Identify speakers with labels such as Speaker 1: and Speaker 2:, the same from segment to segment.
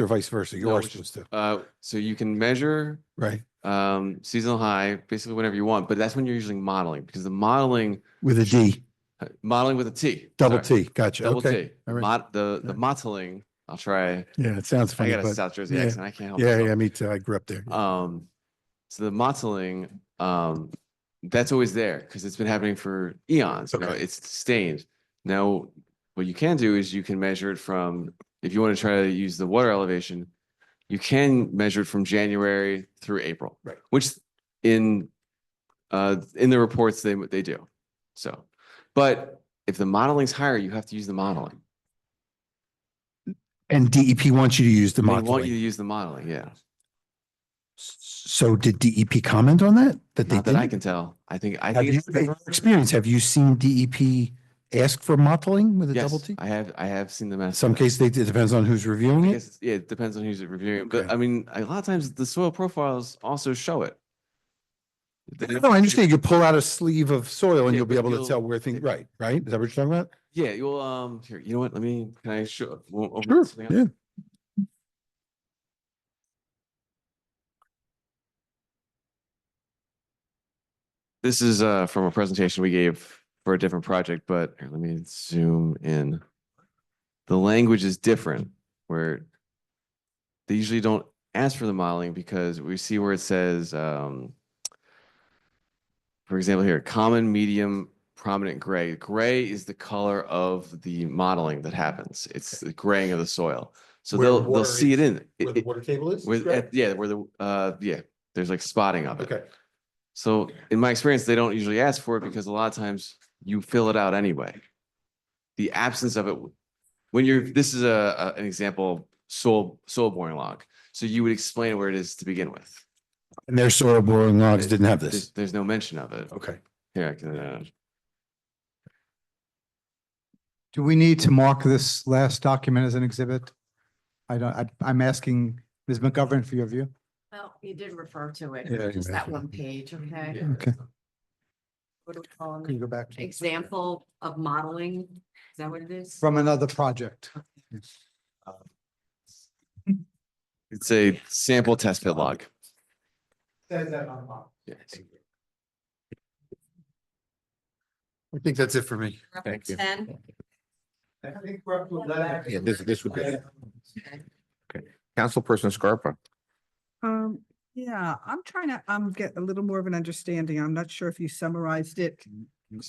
Speaker 1: or vice versa. You
Speaker 2: No,
Speaker 1: are
Speaker 2: which-
Speaker 1: supposed to,
Speaker 2: Uh, so you can measure
Speaker 1: right?
Speaker 2: um, seasonal high, basically whenever you want, but that's when you're usually modeling because the modeling, uh,
Speaker 1: With a D,
Speaker 2: modeling with a T.
Speaker 1: double
Speaker 2: sorry,
Speaker 1: T. Gotcha.
Speaker 2: Double
Speaker 1: Okay.
Speaker 2: T.
Speaker 1: all right.
Speaker 2: Mod, the, the
Speaker 1: Alright.
Speaker 2: modeling, I'll try.
Speaker 1: Yeah, it sounds
Speaker 2: I
Speaker 1: funny,
Speaker 2: got a
Speaker 1: but
Speaker 2: South Jersey
Speaker 1: yeah,
Speaker 2: accent. I can't help
Speaker 1: yeah,
Speaker 2: myself.
Speaker 1: yeah, me too. I grew up there.
Speaker 2: Um, so the mottling, um, that's always there because it's been happening for eons, you know,
Speaker 1: Okay.
Speaker 2: it's stained. Now, what you can do is you can measure it from, if you want to try to use the water elevation, you can measure it from January through April.
Speaker 1: Right.
Speaker 2: Which in, uh, in the reports, they, they do. So, but if the modeling's higher, you have to use the modeling.
Speaker 1: And DEP wants you to use the
Speaker 2: They want you
Speaker 1: modeling.
Speaker 2: to use the modeling, yeah.
Speaker 1: So did DEP comment on that? That they
Speaker 2: Not that I
Speaker 1: didn't?
Speaker 2: can tell. I think, I
Speaker 1: Have
Speaker 2: think.
Speaker 1: you,
Speaker 2: it's-
Speaker 1: in your experience, have you seen DEP ask for modeling with a double
Speaker 2: Yes,
Speaker 1: T?
Speaker 2: I have, I have seen them
Speaker 1: In
Speaker 2: ask.
Speaker 1: Some
Speaker 2: cases.
Speaker 1: case, they, it depends on who's reviewing
Speaker 2: I
Speaker 1: it.
Speaker 2: guess, it's- yeah, it depends on who's reviewing, but
Speaker 1: Okay.
Speaker 2: I mean, a lot of times the soil profiles also show it. They-
Speaker 1: No, I understand. You pull out a sleeve of soil and
Speaker 2: Yeah,
Speaker 1: you'll be
Speaker 2: but
Speaker 1: able to
Speaker 2: you'll-
Speaker 1: tell where things, right, right? Is that what you're talking about?
Speaker 2: Yeah, you'll, um, here, you know what, let me, can I show? we'll open
Speaker 1: Sure,
Speaker 2: something up.
Speaker 1: yeah.
Speaker 2: This is, uh, from a presentation we gave for a different project, but here, let me zoom in. The language is different where they usually don't ask for the modeling because we see where it says, um, for example, here, common, medium, prominent gray. Gray is the color of the modeling that happens. It's the graying of the soil. So
Speaker 1: Where
Speaker 2: they'll,
Speaker 1: the
Speaker 2: they'll
Speaker 1: water
Speaker 2: see it
Speaker 1: is-
Speaker 2: in, it- it-
Speaker 1: water table is?
Speaker 2: with, at- yeah, where the, uh, yeah, there's like spotting of it. So in my experience, they don't usually ask for it because a lot of times you fill it out anyway. The absence of it, w- when you're, this is a, a- an example, of soil, soil boring log. So you would explain where it is to begin with.
Speaker 1: And their soil boring logs
Speaker 2: It-
Speaker 1: didn't have
Speaker 2: There's,
Speaker 1: this.
Speaker 2: there's no mention of it.
Speaker 1: Okay.
Speaker 2: Here, I can, uh,
Speaker 3: Do we need to mark this last document as an exhibit? I don't, I, I'm asking Ms. McGovern for your view.
Speaker 4: Well, you did refer to it,
Speaker 1: Yeah, you
Speaker 4: just that
Speaker 1: mentioned
Speaker 4: one page, okay?
Speaker 2: yeah.
Speaker 3: Okay.
Speaker 4: What do we call
Speaker 3: Can
Speaker 4: them?
Speaker 3: you go back? to-
Speaker 4: Example of modeling, is that what it is?
Speaker 3: From another project.
Speaker 2: It's a sample test pit log. Yes.
Speaker 1: I think that's it for me.
Speaker 4: Reference
Speaker 1: Thank you.
Speaker 4: Ten,
Speaker 5: Yeah, this, this would be,
Speaker 4: Okay.
Speaker 5: Councilperson Scarpa.
Speaker 6: Um, yeah, I'm trying to, um, get a little more of an understanding. I'm not sure if you summarized it.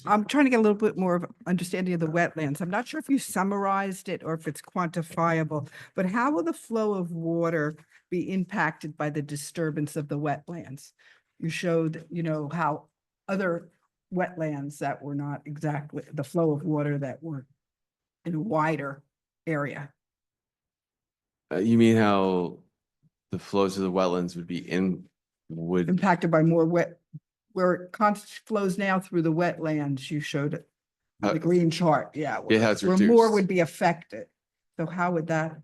Speaker 6: I'm trying to get a little bit more of understanding of the wetlands. I'm not sure if you summarized it or if it's quantifiable. But how will the flow of water be impacted by the disturbance of the wetlands? You showed, you know, how other wetlands that were not exactly, the flow of water that were in a wider area.
Speaker 2: Uh, you mean how the flows of the wetlands would be in, would,
Speaker 6: impacted by more wet, where it const- flows now through the wetlands, you showed it,
Speaker 2: Uh,
Speaker 6: the green chart, yeah.
Speaker 2: yeah,
Speaker 6: where-
Speaker 2: how it's
Speaker 6: Where more
Speaker 2: reduced.
Speaker 6: would be affected. So how would that,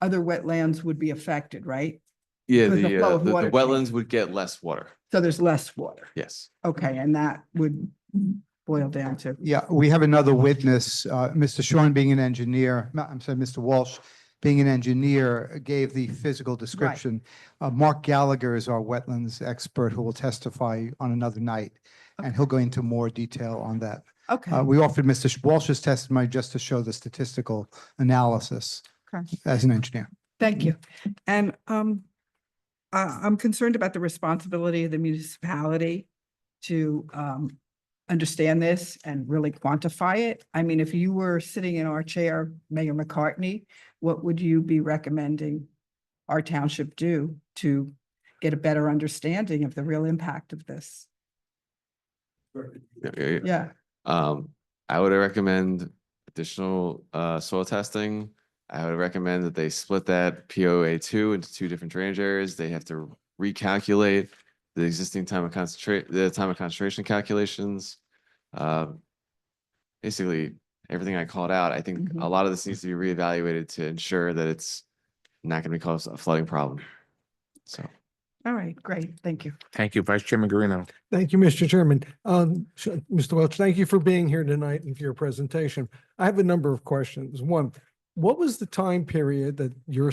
Speaker 6: other wetlands would be affected, right?
Speaker 2: yeah,
Speaker 6: because the
Speaker 2: the,
Speaker 6: flow
Speaker 2: uh,
Speaker 6: of
Speaker 2: the the
Speaker 6: water
Speaker 2: wetlands would get less water.
Speaker 6: So there's less water.
Speaker 2: Yes.
Speaker 6: Okay, and that would boil down to,
Speaker 3: Yeah, we have another witness, uh, Mr. Shorn being an engineer, no, I'm sorry, Mr. Walsh being an engineer, gave the physical description. Uh, Mark Gallagher is our wetlands expert who will testify on another night, and he'll go into more detail on that. Uh,
Speaker 6: okay,
Speaker 3: we offered Mr. Sh- Walsh's testimony just to show the statistical analysis
Speaker 6: Okay.
Speaker 3: as an engineer.
Speaker 6: thank you. And, um, I, I'm concerned about the responsibility of the municipality to, um, understand this and really quantify it. I mean, if you were sitting in our chair, Mayor McCartney, what would you be recommending our township do to get a better understanding of the real impact of this?
Speaker 2: Yeah, yeah, yeah.
Speaker 6: Yeah,
Speaker 2: Um, I would recommend additional, uh, soil testing. I would recommend that they split that POA two into two different drainage areas. They have to recalculate the existing time of concentrate, the time of concentration calculations. Uh, Basically, everything I called out, I think a
Speaker 6: Mhm.
Speaker 2: lot of this needs to be reevaluated to ensure that it's not going to cause a flooding problem. So.
Speaker 6: all right, great, thank you.
Speaker 5: Thank you, Vice Chairman Garino.
Speaker 7: Thank you, Mr. Chairman. Um, sh- Mr. Welch, thank you for being here tonight and for your presentation. I have a number of questions. One, what was the time period that your